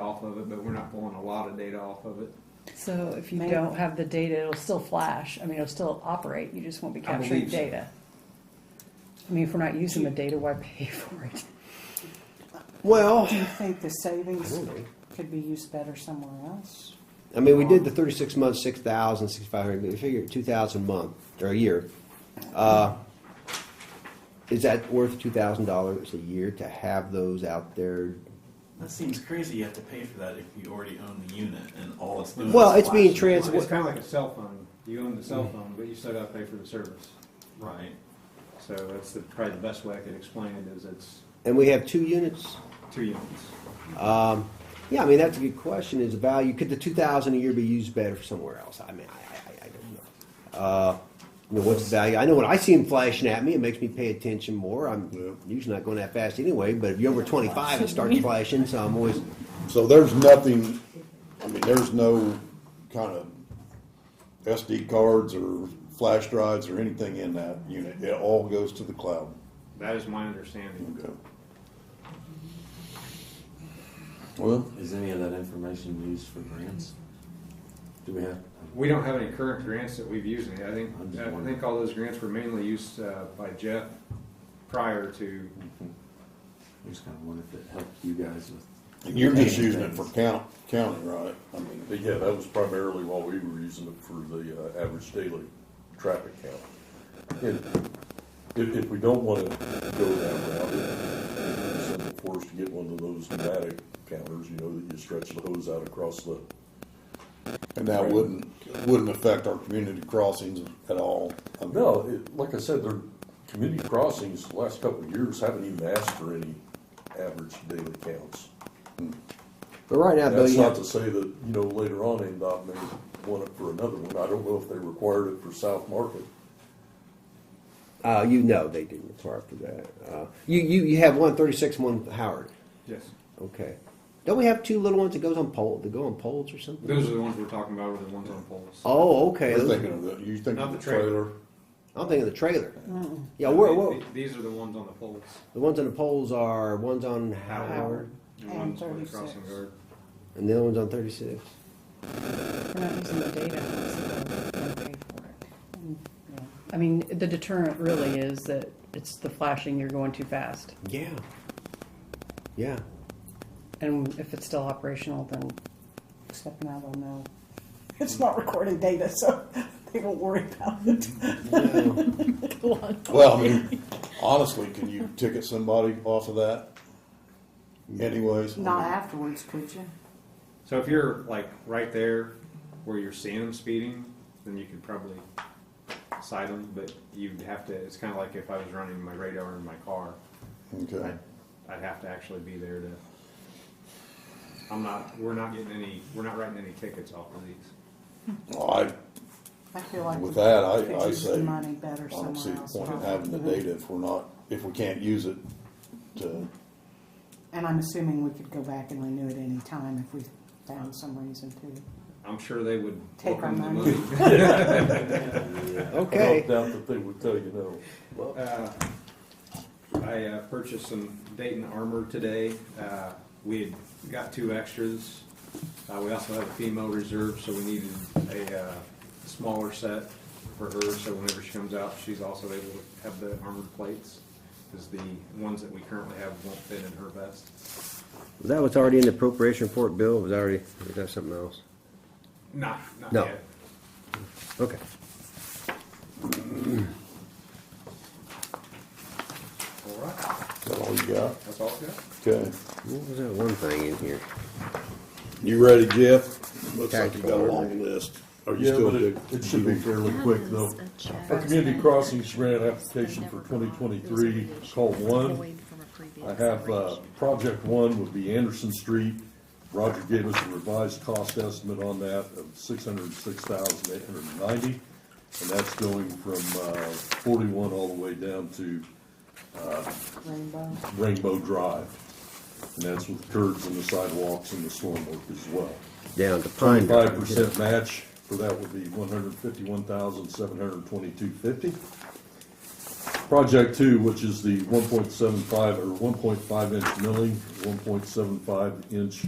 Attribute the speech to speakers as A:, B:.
A: off of it, but we're not pulling a lot of data off of it.
B: So if you
C: Maybe.
B: don't have the data, it'll still flash. I mean, it'll still operate. You just won't be
A: I
B: capturing
A: believe so.
B: data. I mean, if we're not using the data, why pay for it?
D: Well,
C: Do you think the
D: I
C: savings
D: don't know.
C: could be used better somewhere else?
D: I mean, we did the thirty-six months, six thousand, sixty-five hundred, but we figured two thousand a month, or a year. Uh, Is that worth two thousand dollars a year to have those out there?
E: That seems crazy. You have to pay for that if you already own the unit and all it's doing.
D: Well,
E: is
D: it's being
E: flashing.
D: It's-
A: It's, kind of like a cell phone. You own the cell phone, but you still got to pay for the service.
E: Right.
A: So that's the, probably the best way I could explain it is it's
D: And we have two units?
A: two units.
D: Um, yeah, I mean, that's a good question, is the value, could the two thousand a year be used better for somewhere else? I mean, I, I, I don't know. Uh, you know, what's the value? I know when I see them flashing at me, it makes me pay attention more. I'm usually not going that fast anyway, but if you're over twenty-five, it starts flashing, so I'm always,
F: So there's nothing, I mean, there's no kind of SD cards or flash drives or anything in that unit. It all goes to the cloud.
A: That is my understanding.
F: Okay. Well,
G: Is any of that information used for grants? Do we have?
A: We don't have any current grants that we've used. I think
G: I'm just
A: I
G: wondering.
A: think all those grants were mainly used uh, by Jeff prior to
G: I just kind of wonder if it helped you guys with.
F: you're just using it for count, county, right? I mean, yeah, that was primarily what we were using it for the uh, average daily traffic count. And If, if we don't want to go that route, it's something for us to get one of those pneumatic counters, you know, that you stretch the hose out across the. And that wouldn't, wouldn't affect our community crossings at all. No, it, like I said, their community crossings, the last couple of years, haven't even asked for any average daily counts.
D: but right now, Bill,
F: That's
D: you
F: not
D: have,
F: to say that, you know, later on, NDOT may want it for another one. I don't know if they required it for South Market.
D: uh, you know they didn't require for that. Uh, you, you, you have one thirty-six, one Howard,
A: yes.
D: okay. Don't we have two little ones that goes on pole, that go on poles or something?
A: Those are the ones we're talking about. Were the ones on poles.
D: Oh, okay.
F: You're
D: those are-
F: thinking of the, you think
A: Not
F: of the
A: the trailer.
F: trailer?
D: I'm thinking of the trailer. Yeah,
A: They-
D: where,
A: they-
D: where,
A: These are the ones on the poles.
D: the ones on the poles are ones on Howard
A: The
C: And
A: ones where the crossing
C: 36.
A: guard.
D: and the other one's on 36.
B: We're not using the data. so we don't pay for it.
C: Yeah.
B: I mean, the deterrent really is that it's the flashing, you're going too fast.
D: Yeah. Yeah.
B: And if it's still operational, then
C: Except now they'll know. It's not recording data, so they won't worry about it.
F: Well, I mean, honestly, can you ticket somebody off of that anyways?
C: Not afterwards, could you?
A: So if you're like right there where you're seeing them speeding, then you could probably side them, but you'd have to, it's kind of like if I was running my radar in my car.
F: Okay.
A: I'd, I'd have to actually be there to, I'm not, we're not getting any, we're not writing any tickets off of these.
F: Well,
C: I feel
F: I,
C: like.
F: with that,
C: we could
F: I, I
C: use
F: say,
C: the
F: I
C: Money better
F: don't see
C: somewhere
F: the
C: else. Mm-hmm.
F: point in having the data if we're not, if we can't use it to,
C: And I'm assuming we could go back and renew it any time if we found some reason to.
A: I'm sure they would.
C: Take our
A: welcome the
C: money.
D: Okay.
F: doubt that they would tell you no.
A: Uh, I uh, purchased some Dayton armor today. Uh, We had got two extras. Uh, We also have a female reserve, so we needed a uh, smaller set for her, so whenever she comes out, she's also able to have the armored plates, because the ones that we currently have won't fit in her vest.
D: Was that what's already in the appropriation report, Bill? Was already, was that something else?
A: Not, not
D: No.
A: yet.
D: Okay.
A: All right,
F: Is that all you got?
A: that's all I got.
F: Okay.
D: What was that one thing in here?
F: You ready, Jeff? Looks
D: like you got a long
F: list. Are
H: Yeah, but it, it should be fairly quick though. Our community crossings grant application for twenty twenty-three, call one. I have, uh,
F: project one would be Anderson Street. Roger gave us a revised cost estimate on that of six hundred and six thousand eight hundred and ninety. And that's going from, uh, forty-one all the way down to
C: Rainbow.
F: Rainbow Drive. And that's with curbs and the sidewalks and the storm work as well.
D: Down to Pine
F: Twenty-five
D: Barrens.
F: percent match for that would be one hundred fifty-one thousand, seven hundred twenty-two fifty. Project two, which is the one point seven five or one point five inch milling, one point seven five inch